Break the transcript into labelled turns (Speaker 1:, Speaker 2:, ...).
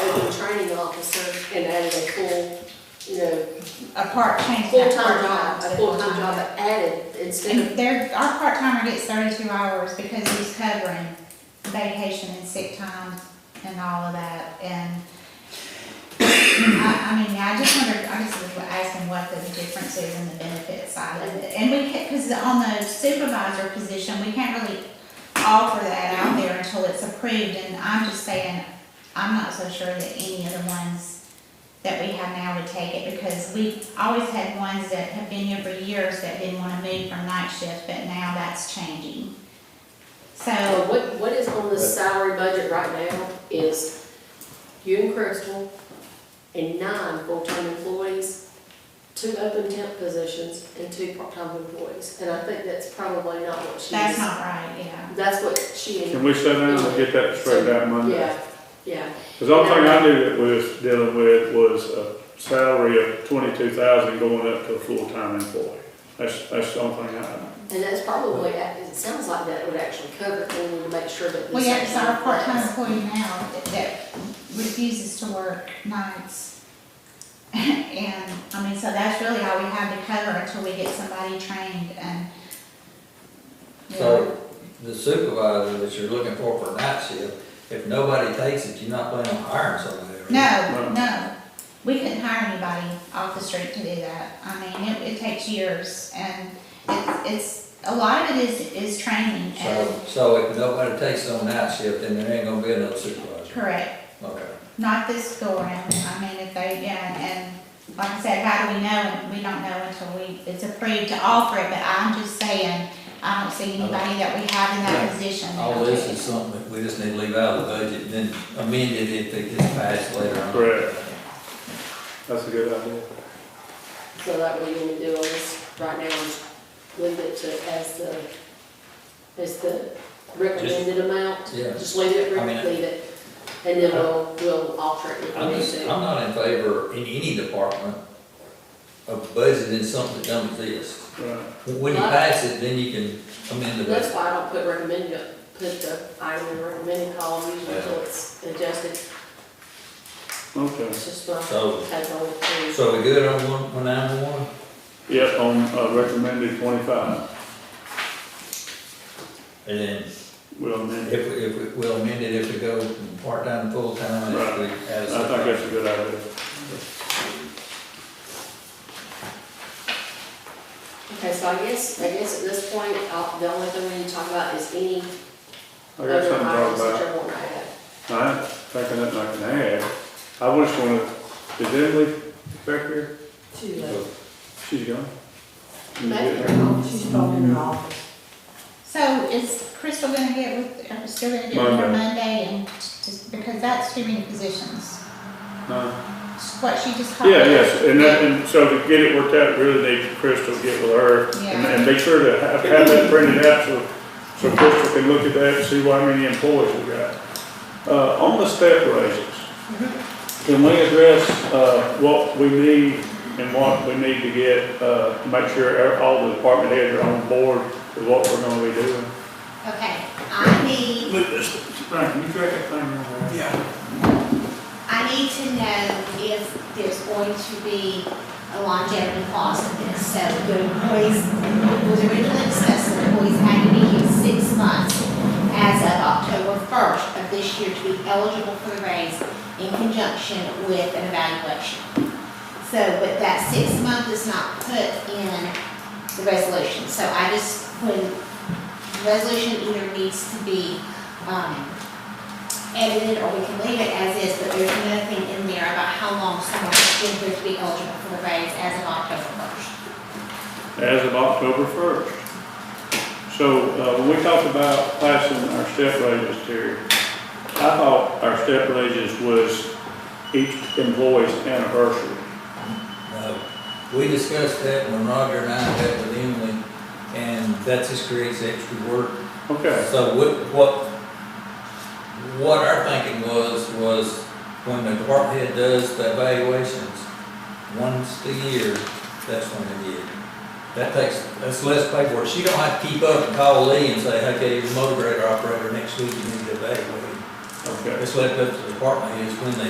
Speaker 1: became a training officer and added a full, you know,
Speaker 2: a part, change that
Speaker 1: full-time
Speaker 2: part
Speaker 1: job, a
Speaker 2: to
Speaker 1: full-time job, but added instead of,
Speaker 2: And there, our part-timer gets thirty-two hours because he's covering vacation and sick time and all of that, and I, I mean, I just wondered, I just was asking what the difference is in the benefit side of it, and we can't, cause on the supervisor position, we can't really offer that out there until it's approved, and I'm just saying, I'm not so sure that any of the ones that we have now would take it, because we've always had ones that have been here for years that didn't wanna move from night shift, but now that's changing.
Speaker 1: Uh,
Speaker 2: So,
Speaker 1: what, what is on the salary budget right now is you and Crystal and nine full-time employees, two open temp positions and two part-time employees. And I think that's probably not what she's.
Speaker 2: that's not right, yeah.
Speaker 1: That's what she,
Speaker 3: Can we sit down and get that straightened out Monday?
Speaker 1: yeah, yeah.
Speaker 3: Because all thing I knew that we was dealing with was a salary of twenty-two thousand going up to a full-time employee. That's, that's the only thing I know.
Speaker 1: And that's probably, it sounds like that would actually cover it, and we need to make sure that. this
Speaker 2: Well, yeah, it's our
Speaker 1: actually
Speaker 2: part-time
Speaker 1: applies.
Speaker 2: employee now that- that refuses to work nights. And, I mean, so that's really all we have to cover until we get somebody trained and.
Speaker 4: So the supervisor that you're looking for for night shift, if nobody takes it, you're not planning on hiring somebody. are
Speaker 2: No,
Speaker 4: you?
Speaker 2: no, we couldn't hire anybody off the street to do that. I mean, it, it takes years and it's, it's, a lot of it is, is training and,
Speaker 4: So, so if nobody takes it on night shift, then there ain't gonna be another supervisor.
Speaker 2: correct,
Speaker 4: Okay.
Speaker 2: not this go around. I mean, if they, yeah, and like I said, how do we know? We don't know until we, it's approved to offer it, but I'm just saying, I don't see anybody that we have in that position. that
Speaker 4: All
Speaker 2: will
Speaker 4: this
Speaker 2: do
Speaker 4: is
Speaker 2: it.
Speaker 4: something that we just need to leave out of the budget and then amend it if it gets passed later on.
Speaker 3: Correct. That's a good idea.
Speaker 1: So that way you want to do all this right now, is leave it to, as the, as the recommended amount.
Speaker 4: Yeah.
Speaker 1: Just leave it,
Speaker 4: I mean,
Speaker 1: leave it, and then we'll, we'll alter it if we
Speaker 4: I'm
Speaker 1: need
Speaker 4: just,
Speaker 1: to.
Speaker 4: I'm not in favor in any department of budgeting something that don't exist.
Speaker 3: Right.
Speaker 4: When you pass it, then you can amend the
Speaker 1: That's
Speaker 4: budget.
Speaker 1: why I don't put recommended, put the item in recommended column usually until it's adjusted,
Speaker 3: Okay.
Speaker 1: it's just my
Speaker 4: So,
Speaker 1: take on it.
Speaker 4: so we good on one, one nine one?
Speaker 3: Yep, on uh, recommended twenty-five.
Speaker 4: And then
Speaker 3: We'll amend
Speaker 4: if,
Speaker 3: it.
Speaker 4: we- if, we- we'll amend it if we go from part-time to full-time, if we
Speaker 3: I
Speaker 4: add. a-
Speaker 3: think that's a good idea.
Speaker 1: Okay, so I guess, I guess at this point, uh, the only thing we need to talk about is any
Speaker 3: I got
Speaker 1: other
Speaker 3: something to talk
Speaker 1: items
Speaker 3: about.
Speaker 1: that you want to add.
Speaker 3: I think nothing I can add. I was going to, did Emily back here?
Speaker 5: She's
Speaker 3: She's gone. You
Speaker 1: Back
Speaker 3: get
Speaker 1: here,
Speaker 3: her.
Speaker 5: probably in her office.
Speaker 2: So is Crystal gonna get with, are we still gonna do it for
Speaker 3: Monday.
Speaker 2: Monday and, just- because that's too many positions.
Speaker 3: No.
Speaker 2: What she just called?
Speaker 3: Yeah, yes, and that, and so to get it worked out, really need Crystal to get with her and,
Speaker 2: Yeah.
Speaker 3: and make sure to have, have that printed out so, so Crystal can look at that and see how many employees we got. Uh, on the step raises, can we address, uh, what we need and what we need to get, uh, to make sure our- all the department heads are on board with what we're gonna be doing?
Speaker 2: Okay, I need,
Speaker 3: Look, this, Frank, can you track that thing around there?
Speaker 6: I need to know if there's going to be a longevity clause in this, so your employees, it was originally discussed, that employees had to be here six months as of October first of this year to be eligible for the raise in conjunction with an evaluation. So, but that six month is not put in the resolution, so I just, when, the resolution either needs to be, um, edited or we can leave it as is, but there's nothing in there about how long someone is going to be eligible for the raise as of October first.
Speaker 3: as of October first. So, uh, when we talked about passing our step raises, Terry, I thought our step raises was each employee's anniversary.
Speaker 4: Uh, We discussed that when Roger and I met with Emily, and that just creates extra work.
Speaker 3: Okay,
Speaker 4: So what, what, what our thinking was, was when the department head does the evaluations, once a year, that's when they get. it. That takes, that's less paperwork. She don't have to keep up and call Lee and say, okay, your motor grader operator next week, you need to evaluate.
Speaker 3: okay.
Speaker 4: It's left up to the department heads when they